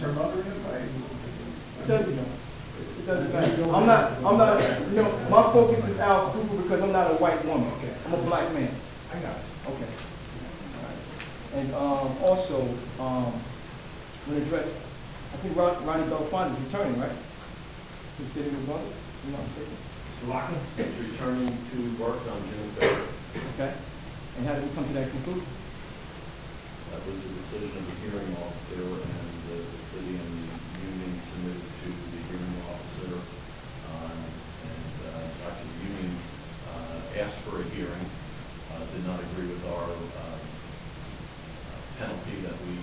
promoting it, like? It doesn't, it doesn't matter. I'm not, I'm not, you know, my focus is Al Cooper because I'm not a white woman. I'm a black man. I got it. Okay. And, um, also, um, when address, I think Ron- Ronnie Belfont is returning, right? He's sitting with brother, you know what I'm saying? Lock is returning to work on June third. Okay. And how did we come to that conclusion? That was the decision of the hearing officer, and the the city and the union submitted to the hearing officer. um, And uh, Dr. Union uh, asked for a hearing, uh, did not agree with our um, uh, penalty that we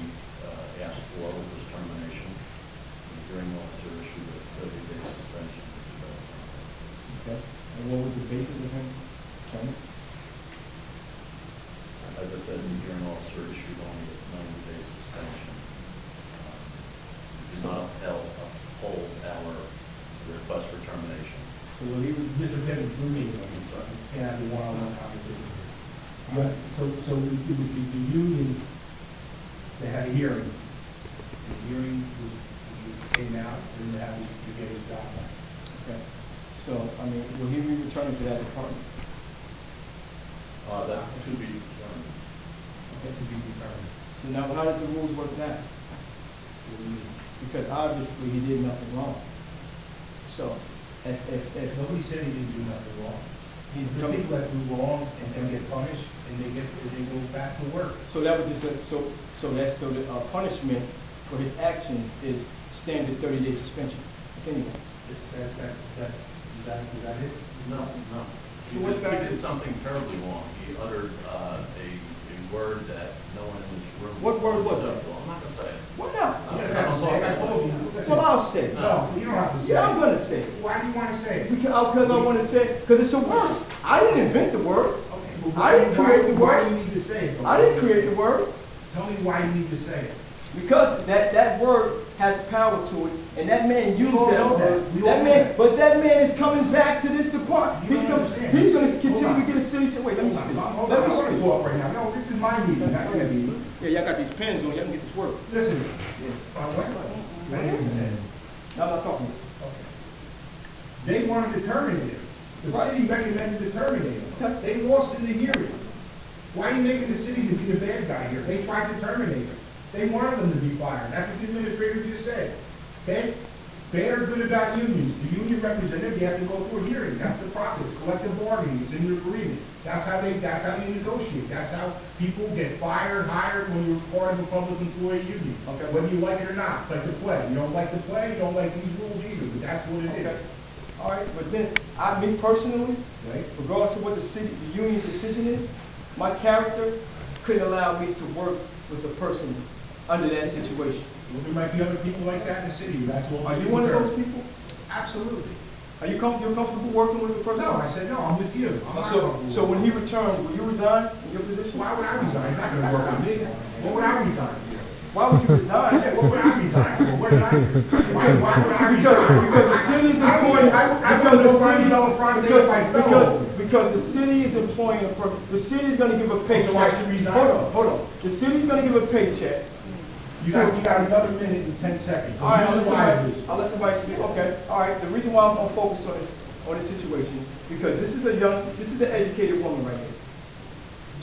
uh, asked for, which was termination. The hearing officer issued a thirty-day suspension. Okay. And what was the basis of him coming? As I said, the hearing officer issued only a ninety-day suspension. Um, Did not upheld- uphold our request for termination. So when he was, Mr. Bennett, through me, like, and I had a one-on-one conversation. But, so, so it would be the union that had a hearing. The hearing was, came out, and that was to get his job back. Okay. So, I mean, will he be returning to that department? Uh, That's to be determined. That could be determined. So now, how does the rules work now? Because obviously he did nothing wrong. So, if, if, If if, nobody said he didn't do nothing wrong, He's he's become- the people that do wrong and then get punished, and they get, and they go back to work. so that was just, a- so, so that's, so the uh, punishment for his actions is standard thirty day suspension. Anyway, That, that, that, is that, is that it? No, no. He So what did- fact- he did something terribly wrong. He uttered uh, a a word that no one in this room... What word was it? Well, I'm not going to say it. what now? I'm not gonna say it. I told you. That's what I'll say. No, you don't have to say. Yeah, I'm gonna say it. Why do you wanna say it? Because I wanna say, because it's a word. I didn't invent the word. Okay, but I didn't why- create the Why word. do you need to say it? I didn't create the word. Tell me why you need to say it. Because that, that word has power to it, and that man used all that know that. word. We all That know man, that. but that man is coming back to this department. You He's don't gonna, understand. he's gonna Hold continue to on. get a city, wait, let me Hold speak. on, hold on, Let I me wanna speak. talk right now. No, this is my meeting, not your meeting. Yeah, y'all got these pens on, y'all can get this work. Listen, uh, wait, wait, wait a minute. No, I'm not talking. Okay. They wanted to terminate him. The Right. city recommended to terminate him. They lost in the hearing. Why are you making the city to be the bad guy here? They tried to terminate him. They wanted him to be fired. That's what the administrator just said. Bad, bad or good about unions, the union representative, you have to go through a hearing. That's the process. Collective bargaining is in your agreement. That's how they, that's how you negotiate. That's how people get fired, hired when you're part of a public employee union. Okay. Whether you like it or not, it's like the play. You don't like the play, you don't like these rules either, but that's what it is. Okay. All right, but then, I, me personally, Right? regardless of what the city, the union's decision is, my character couldn't allow me to work with a person under that situation. Well, there might be other people like that in the city, that's what. Are you one of those people? Absolutely. Are you com- you're comfortable working with a person? No, I said, no, I'm with you. I'm not So, comfortable. so when he returns, will you resign in your position? Why would I resign? It's not gonna work with me. What would I resign? Why would you resign? Yeah, what would I resign for? What did I, why, why would I resign? Because, because the city is I would- employing, I would, I would because the go city, find another Friday if I because, because, fell. because the city is employing, a per- the city is gonna give a paycheck. So I should resign? Hold on, hold on. The city's gonna give a paycheck. You got, you got another minute and ten seconds. All right, I'll Use let somebody, wisely. I'll let somebody speak, okay. All right, the reason why I'm gonna focus on this, on this situation, because this is a young, this is an educated woman right here.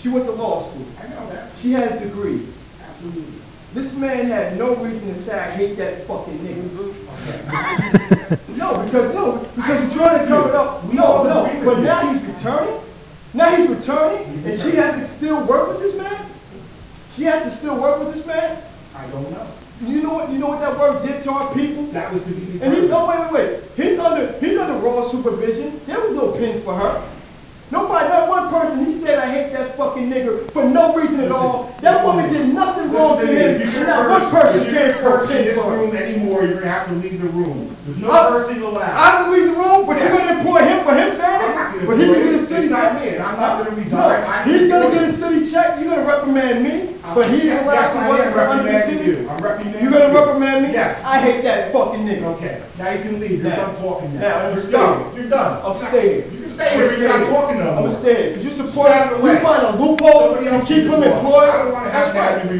She went to law school. I know that, She has degrees. absolutely. This man had no reason to say, I hate that fucking nigga. No, because, no, because you're trying to cover it up. We No, all no, agree with but you. now he's returning? Now he's returning, and she has to still work with this man? She has to still work with this man? I don't know. You know what, you know what that word did to our people? That was to be And he's, determined. oh, wait, wait, wait, he's under, he's under raw supervision, there was no pins for her. Nobody, not one person, he said, I hate that fucking nigga for no reason at all. That woman did nothing wrong to him, and not one person If you're gave a her a person in this pin for her. room anymore, you're gonna have to leave the room. There's no I- person allowed. I leave the room, but you're gonna employ him for him saying it? I'm not gonna But he can employ him. get a city It's not me, check? and I'm not gonna resign. No, I'm He's gonna get employed. a city check, you're gonna reprimand me, but he's Yes, allowed to I work am for under the reprimanding city? you. I'm reprimanding You're gonna you. reprimand me? Yes. I hate that fucking nigga. Okay, now you can leave, you're done Now. talking Now, now. I'm You're staying. done, you're done. I'm staying. You can stay here, you're not talking no more. I'm staying, cause you support, Stand you away. find a loophole, Somebody you else keep can him do it. employed, I don't wanna that's have that right. to be